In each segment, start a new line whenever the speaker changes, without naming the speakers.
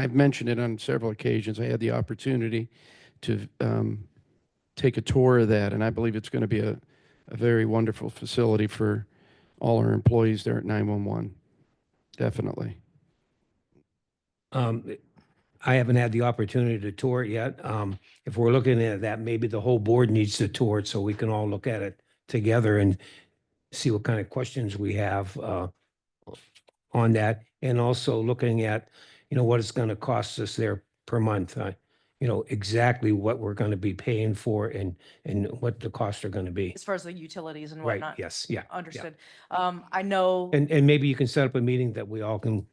I've mentioned it on several occasions. I had the opportunity to um, take a tour of that, and I believe it's going to be a, a very wonderful facility for all our employees there at 911. Definitely.
Um, I haven't had the opportunity to tour it yet. Um, if we're looking at that, maybe the whole board needs to tour it so we can all look at it together and see what kind of questions we have, uh, on that. And also looking at, you know, what it's going to cost us there per month. uh, You know, exactly what we're going to be paying for and, and what the costs are going to be.
as far as the utilities and
Right,
whatnot.
yes, yeah.
Understood. Um, I know,
And, and maybe you can set up a meeting that we all can.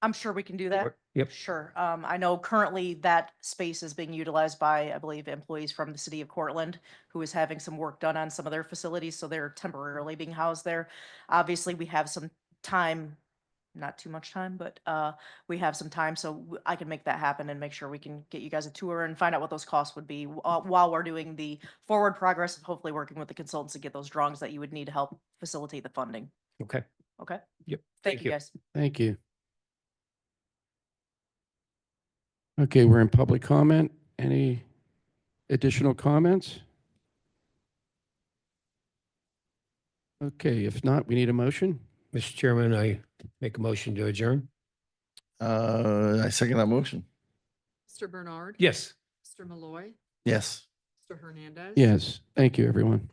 I'm sure we can do that.
Yep,
Sure. Um, I know currently that space is being utilized by, I believe, employees from the city of Cortland who is having some work done on some of their facilities, so they're temporarily being housed there. Obviously, we have some time, not too much time, but, uh, we have some time, so w- I can make that happen and make sure we can get you guys a tour and find out what those costs would be wh- uh, while we're doing the forward progress of hopefully working with the consultants to get those drawings that you would need to help facilitate the funding.
okay.
Okay?
Yep,
Thank
thank you.
you, guys.
Thank you. Okay, we're in public comment. Any additional comments? Okay, if not, we need a motion.
Mr. Chairman, I make a motion to adjourn.
Uh, I second that motion.
Mr. Bernard.
Yes.
Mr. Malloy.
Yes.
Mr. Hernandez.
Yes, thank you, everyone.